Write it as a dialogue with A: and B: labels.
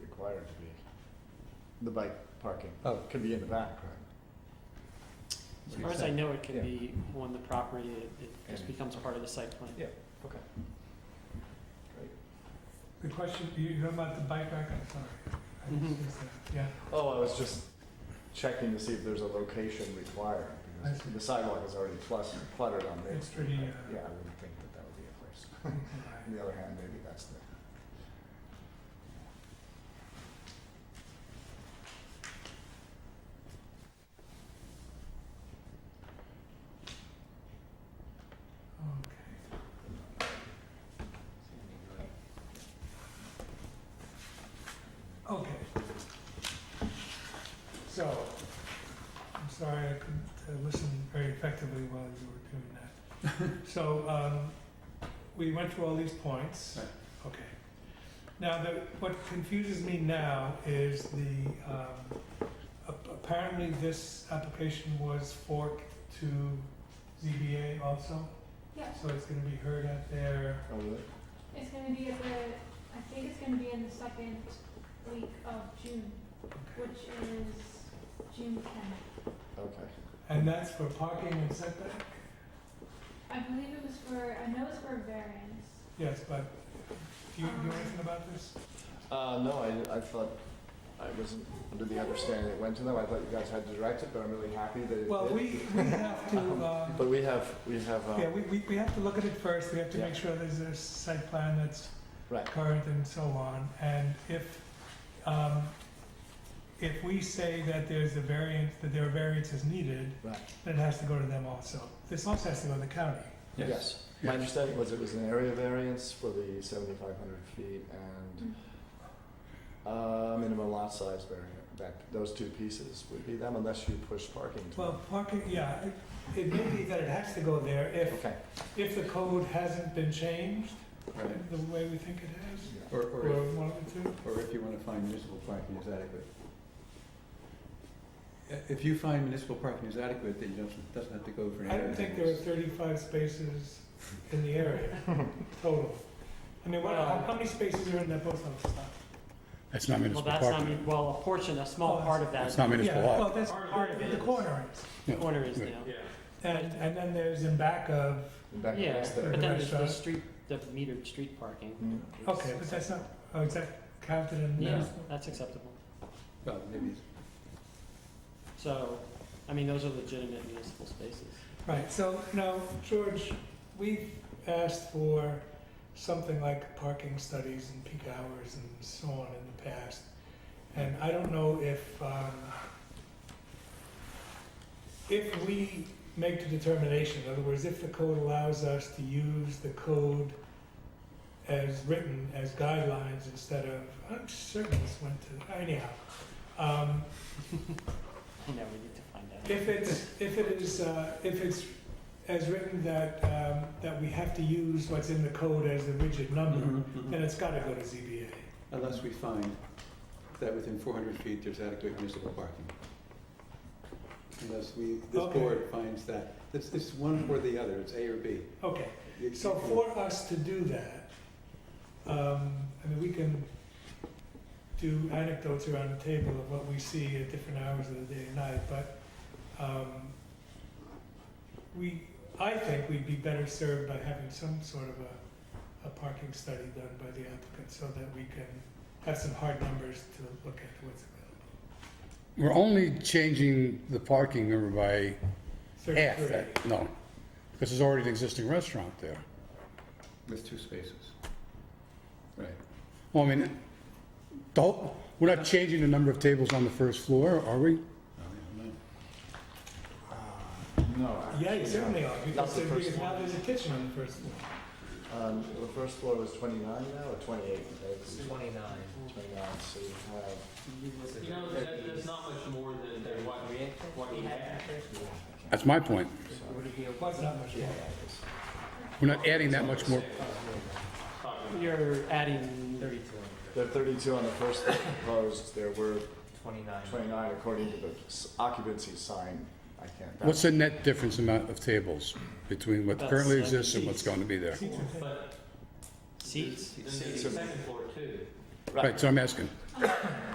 A: required to be. The bike parking
B: Oh.
A: can be in the back, right?
C: As far as I know, it can
A: Yeah.
C: be on the property, it, it just
A: And-
C: becomes part of the site plan.
A: Yeah. Okay. Great.
D: The question, you, you know about the bike rack, I'm sorry. I didn't
C: Mhm.
D: see that. Yeah,
A: Oh, I was just checking to see if there's a location required, because
D: I see.
A: the sidewalk is already plus cluttered on Main
D: It's
A: Street.
D: pretty,
A: I-
D: uh,
A: Yeah, I wouldn't think that that would be a place. On
D: all right.
A: the other hand, maybe that's the.
D: okay. Okay. So, I'm sorry I couldn't uh, listen very effectively while you were doing that. So, um, we went through all these points.
B: Right.
D: Okay. Now, the, what confuses me now is the, um, ap- apparently this application was forked to ZBA also?
E: Yeah.
D: So it's gonna be heard at their,
A: Oh, really?
E: It's gonna be at the, I think it's gonna be in the second week of June,
D: okay.
E: which is June tenth.
A: Okay.
D: and that's for parking and setback?
E: I believe it was for, I know it's for a variance.
D: Yes, but do you do you know anything about this?
A: Uh, no, I, I thought, I wasn't under the understanding it went to them. I thought you guys had to direct it, but I'm really happy that it did.
D: Well, we, we have to, um,
A: But we have, we have, uh,
D: yeah, we, we, we have to look at it first, we have to
A: Yeah.
D: make sure there's a site plan that's
A: Right.
D: current and so on, and if, um, if we say that there's a variance, that there are variances needed,
A: Right.
D: then it has to go to them also. This also has to go to the county.
A: yes. My understanding was it was an area variance for the seventy-five hundred feet and,
C: Mm.
A: uh, minimum lot size variant. That, those two pieces would be them unless you push parking to them.
D: Well, parking, yeah, it- it may be that it has to go there if,
A: Okay.
D: if the code hasn't been changed
B: Right.
D: the way we think it has,
A: Yeah.
B: Or,
D: or
B: or, if-
D: one of the two.
B: or if you want to find municipal parking is adequate. I- If you find municipal parking is adequate, then you don't, doesn't have to go for an
D: I
B: area
D: don't think there are
B: variance.
D: thirty-five spaces in the area total. I mean, what, how how many spaces are in that post office lot?
F: That's not
C: Well,
F: municipal
C: that's not,
F: parking.
C: well, a portion, a
D: Oh,
C: small part of
F: It's
C: that
F: not municipal
D: Yeah,
F: lot.
D: Well, that's part of The corner is.
C: corner is now.
D: And, and then there's in back of,
A: And back
C: Yeah,
A: next there.
C: but then there's the
D: Restaurant.
C: street, the metered street parking.
A: Mm.
D: Mm-hmm. okay, but that's not, oh, is that counted in
C: Yeah,
D: municipal?
C: that's acceptable.
B: Well, maybe it's
C: So, I mean, those are legitimate municipal spaces.
D: Right, so now, George, we've asked for something like parking studies and peak hours and so on in the past. And I don't know if, um, if we make the determination, in other words, if the code allows us to use the code as written, as guidelines instead of, I'm certain this went to, anyhow. Um,
C: You know, we need to find out.
D: if it's, if it is, uh, if it's as written that, um, that we have to use what's in the code as the rigid
B: Mm-hmm.
D: number, then it's gotta go to ZBA.
B: Unless we find that within four hundred feet, there's adequate municipal parking. Unless we, this
D: Okay.
B: board finds that, it's, it's one or the other, it's A or B.
D: Okay,
B: You-
D: so for us to do that, um, I mean, we can do anecdotes around the table of what we see at different hours of the day and night, but, um, we, I think we'd be better served by having some sort of a, a parking study done by the applicant so that we can have some hard numbers to look at what's available.
F: We're only changing the parking number by half
D: Thirty-three.
F: that, no. Because there's already an existing restaurant there.
B: With two spaces. Right.
F: Well, I mean, the whole, we're not changing the number of tables on the first floor, are we?
B: I don't know.
A: No.
D: Yeah, you
A: actually,
D: certainly are, because
A: That's the
D: there-
A: first
D: because now
A: one.
D: there's a kitchen on the first floor.
A: Um, the first floor was twenty-nine now, or twenty-eight? It's
G: Twenty-nine.
A: Twenty-nine, so you have.
G: You know, that, that's not much more than, than what we, what we had.
F: That's my point.
G: Would it be okay?
D: That's not much
A: Yeah,
D: more.
A: that is.
F: We're not adding that much more.
G: Talking
C: You're adding
G: thirty-two,
A: There are thirty-two on the first floor proposed, there were
G: twenty-nine.
A: twenty-nine according to the s- occupancy sign. I can't. that-
F: What's the net difference amount of tables between what
C: About
F: currently
C: seven
F: exists and what's
C: seats.
F: going to be there?
D: Seats are-
G: But
C: seats.
G: then the second floor too.
A: Right,
F: Right, so I'm asking.
E: Um,